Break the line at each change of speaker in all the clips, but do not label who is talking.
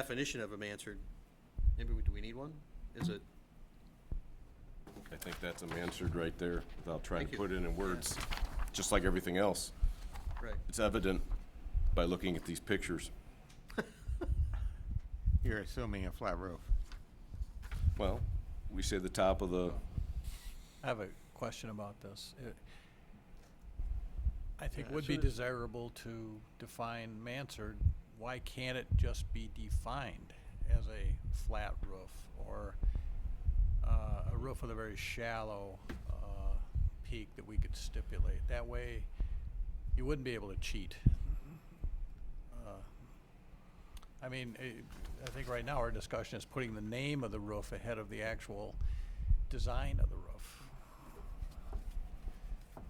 definition of Mansard, maybe, we- do we need one? Is it,
I think that's them answered right there without trying
Thank
to
you.
put it in words, just like everything else.
right,
It's evident by looking at these pictures.
You're assuming a flat roof.
Well, we say the top of the,
I have a question about this. It- I think
Yeah,
would be
sure.
desirable to define mansard. Why can't it just be defined as a flat roof or uh, a roof with a very shallow uh, peak that we could stipulate? That way, you wouldn't be able to cheat. Uh, I mean, eh, I think right now our discussion is putting the name of the roof ahead of the actual design of the roof.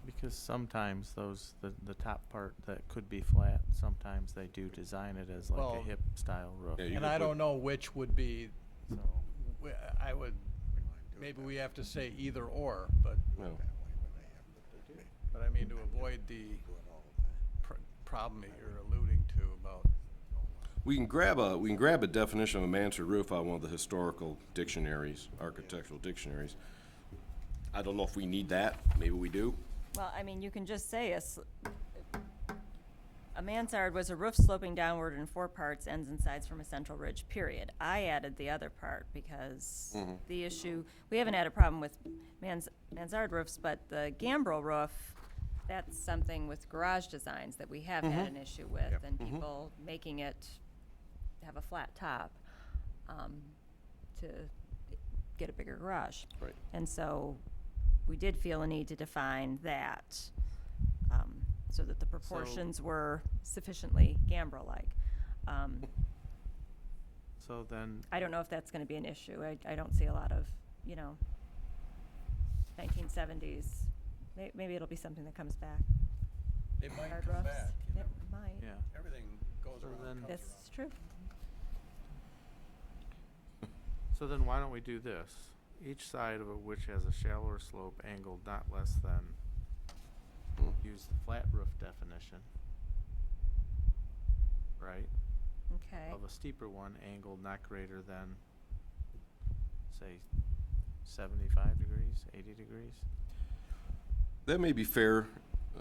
Because sometimes those, the, the top part that could be flat, sometimes they do design it as like
Well-
a hip style roof.
Yeah, you
And
could
I
put-
don't know which would be,
So,
w- I would, maybe we have to say either or, but,
well,
but I mean, to avoid the pr- problem that you're alluding to about,
we can grab a, we can grab a definition of a mansard roof out of one of the historical dictionaries, architectural dictionaries. I don't know if we need that, maybe we do.
Well, I mean, you can just say a, s- a mansard was a roof sloping downward in four parts, ends and sides from a central ridge, period. I added the other part because the issue, we haven't had a problem with mans, mansard roofs, but the gambrel roof, that's something with garage designs that we have had an issue with and people making it have a flat top, um, to get a bigger garage.
Right.
And so we did feel a need to define that, um, so that the proportions were sufficiently Gambrel-like. Um,
so then,
I don't know if that's gonna be an issue. I, I don't see a lot of, you know, nineteen seventies. May, maybe it'll be something that comes back.
they might
Hard
come
roughs.
back. you
It
never-
might.
yeah,
Everything goes
So
around, comes
then-
That's
around.
true.
so then why don't we do this? Each side of a which has a shallower slope angled not less than,
Hmm.
use the flat roof definition. Right,
Okay.
of a steeper one angled not greater than, say, seventy-five degrees, eighty degrees?
That may be fair, uh,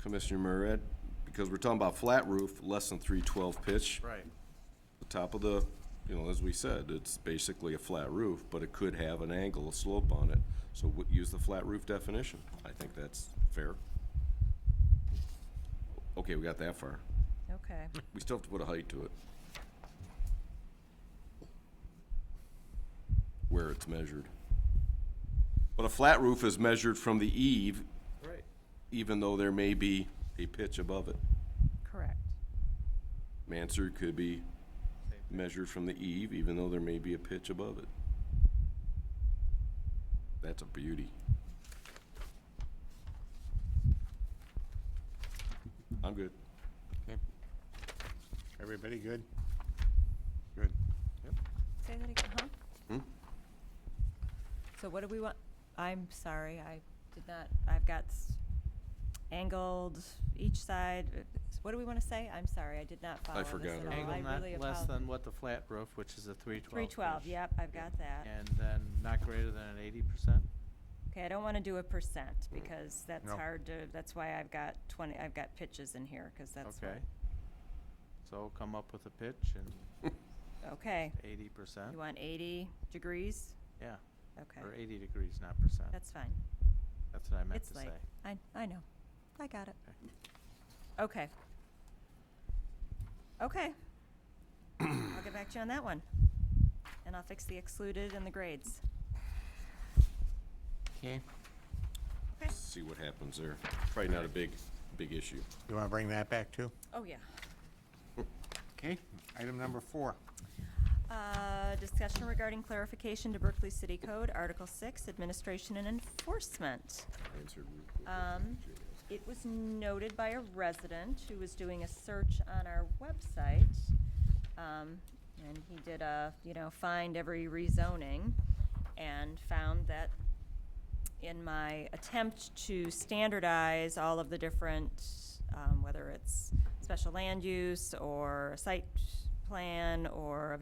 Commissioner Murad, because we're talking about flat roof, less than three twelve pitch.
Right.
the top of the, you know, as we said, it's basically a flat roof, but it could have an angle, a slope on it. So w- use the flat roof definition. I think that's fair. Okay, we got that far.
Okay.
We still have to put a height to it. Where it's measured. But a flat roof is measured from the eave,
Right.
even though there may be a pitch above it.
Correct.
Mansard could be measured from the eave, even though there may be a pitch above it. That's a beauty. I'm good.
Everybody good? Good.
Say that again, huh?
Hmm?
So what do we want? I'm sorry, I did not, I've got s- angled each side. uh, s- What do we want to say? I'm sorry, I did not follow this
forgot
at all.
already.
I
Angle not
really
less
apologize.
than what the flat roof, which is a three twelve.
Three twelve, yep, I've got that.
And then not greater than an eighty percent?
Okay, I don't want to do a percent because that's
No.
hard to, that's why I've got twenty, I've got pitches in here because that's
Okay.
what.
So come up with a pitch and
Okay,
eighty percent?
you want eighty degrees?
Yeah, or
Okay,
eighty degrees, not percent.
that's fine.
That's what I meant
It's
to say.
late. I, I know. I got it.
Okay.
Okay. Okay. I'll get back to you on that one. And I'll fix the excluded and the grades.
Okay.
Okay.
See what happens there. Probably not a big, big issue.
You want to bring that back too?
Oh, yeah.
Okay. Item number four.
Uh, discussion regarding clarification to Berkeley City Code, Article Six, Administration and Enforcement.
Answered.
Um, it was noted by a resident who was doing a search on our website. Um, and he did a, you know, find every rezoning and found that in my attempt to standardize all of the different, um, whether it's special land use or site plan or a